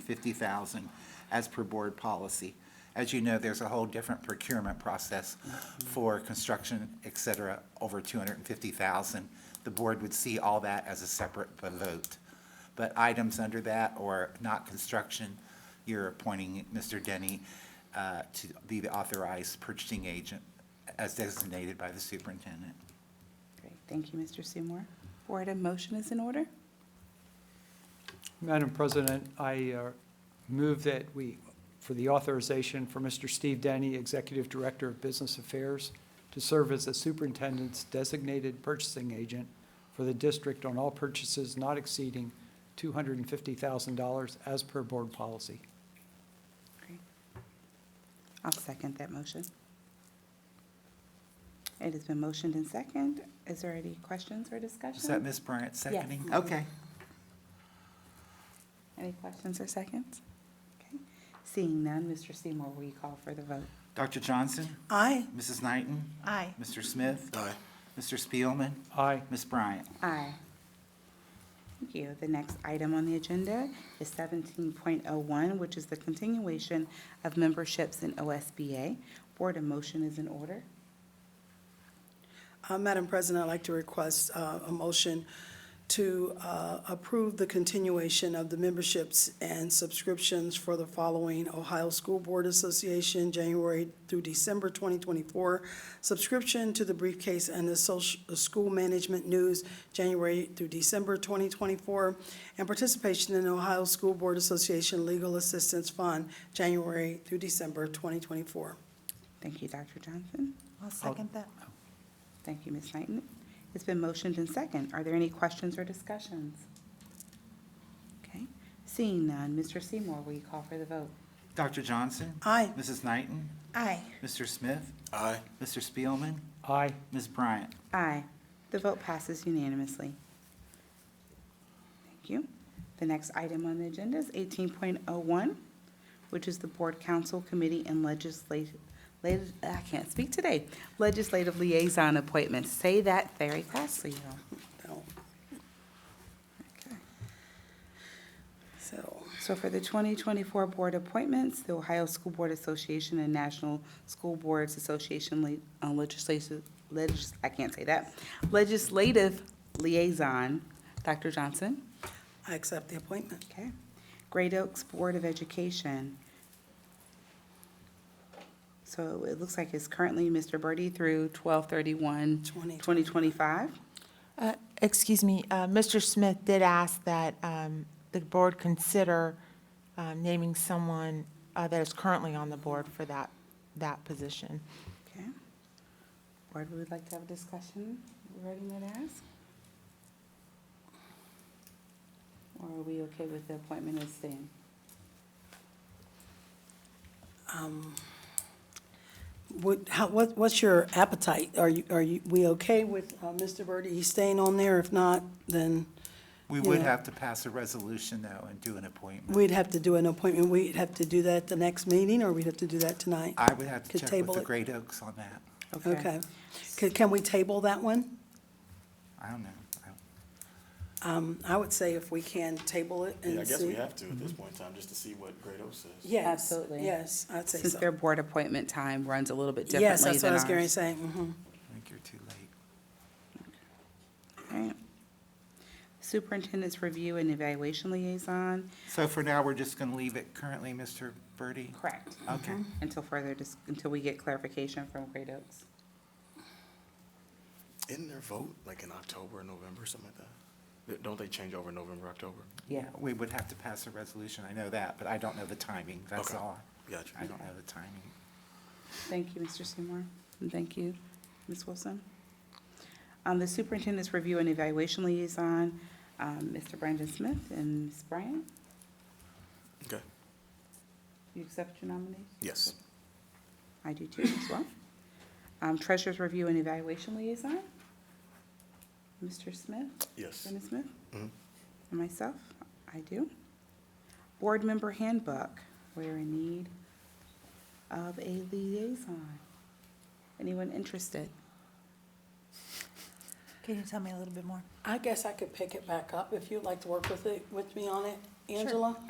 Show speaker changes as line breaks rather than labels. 250,000 as per board policy. As you know, there's a whole different procurement process for construction, et cetera, over 250,000. The board would see all that as a separate vote. But items under that or not construction, you're appointing Mr. Denny uh, to be the authorized purchasing agent as designated by the superintendent.
Great, thank you, Mr. Seymour. Four item motion is in order.
Madam President, I uh, move that we, for the authorization for Mr. Steve Denny, Executive Director of Business Affairs, to serve as the superintendent's designated purchasing agent for the district on all purchases not exceeding $250,000 as per board policy.
Great. I'll second that motion. It has been motioned and second. Is there any questions or discussion?
Is that Ms. Bryant seconding? Okay.
Any questions or seconds? Okay. Seeing none, Mr. Seymour, will you call for the vote?
Dr. Johnson?
Aye.
Mrs. Knighton?
Aye.
Mr. Smith? Aye. Mr. Spielman?
Aye.
Ms. Bryant?
Aye. Thank you. The next item on the agenda is seventeen point oh one, which is the continuation of memberships in OSBA. Board of motion is in order.
Uh, Madam President, I'd like to request uh, a motion to uh, approve the continuation of the memberships and subscriptions for the following Ohio School Board Association, January through December 2024, subscription to the briefcase and the social, the school management news, January through December 2024, and participation in the Ohio School Board Association Legal Assistance Fund, January through December 2024.
Thank you, Dr. Johnson.
I'll second that.
Thank you, Ms. Knighton. It's been motioned and second. Are there any questions or discussions? Okay. Seeing none, Mr. Seymour, will you call for the vote?
Dr. Johnson?
Aye.
Mrs. Knighton?
Aye.
Mr. Smith? Aye. Mr. Spielman?
Aye.
Ms. Bryant?
Aye. The vote passes unanimously. Thank you. The next item on the agenda is 18.01, which is the Board Council Committee and Legislative, I can't speak today, Legislative Liaison Appointments. Say that very fast, Leo.
No. So.
So for the 2024 board appointments, the Ohio School Board Association and National School Boards Association le- uh, legislative, legis, I can't say that, legislative liaison, Dr. Johnson.
I accept the appointment.
Okay. Great Oaks Board of Education. So it looks like it's currently Mr. Birdie through 12/31,
Twenty.
2025.
Uh, Excuse me, uh, Mr. Smith did ask that um, the board consider um, naming someone uh, that is currently on the board for that, that position.
Okay. Board, we would like to have a discussion regarding that ask? Or are we okay with the appointment as staying?
Um, What, how, what, what's your appetite? Are you, are you, we okay with uh, Mr. Birdie? He's staying on there? If not, then
We would
Yeah.
have to pass a resolution, though, and do an appointment.
we'd have to do an appointment. We'd have to do that the next meeting, or we'd have to do that tonight?
I would have to
Could
check
table
with the
it.
Great Oaks on that.
Okay. Can, can we table that one?
I don't know. I don't-
Um, I would say if we can table it and see. Mm-hmm.
Yeah, I guess we have to at this point in time, just to see what Grado says.
Yes,
Absolutely.
Yes, I'd say
Since their
so.
board appointment time runs a little bit differently than
Yes,
ours.
that's what I was going to say.
I
Mhm.
think you're too late.
All right. Superintendent's Review and Evaluation Liaison.
So for now, we're just going to leave it currently, Mr. Birdie?
Correct.
Mm-hmm.
Okay.
Until further, dis- until we get clarification from Great Oaks.
Isn't their vote like in October, November, something like that? Th- Don't they change over November, October?
Yeah.
We would have to pass a resolution, I know that, but I don't know the timing, that's
Okay.
all.
Gotcha.
I don't know the timing.
Thank you, Mr. Seymour, and thank you, Ms. Wilson. Um, The Superintendent's Review and Evaluation Liaison, um, Mr. Brandon Smith and Ms. Bryant,
Okay,
you accept your nomination?
yes.
I do too, as well. Um, Treasurer's Review and Evaluation Liaison, Mr. Smith,
Yes.
Brandon Smith,
Mhm.
and myself, I do. Board Member Handbook, we're in need of a liaison. Anyone interested?
Can you tell me a little bit more?
I guess I could pick it back up if you'd like to work with it, with me on it, Angela?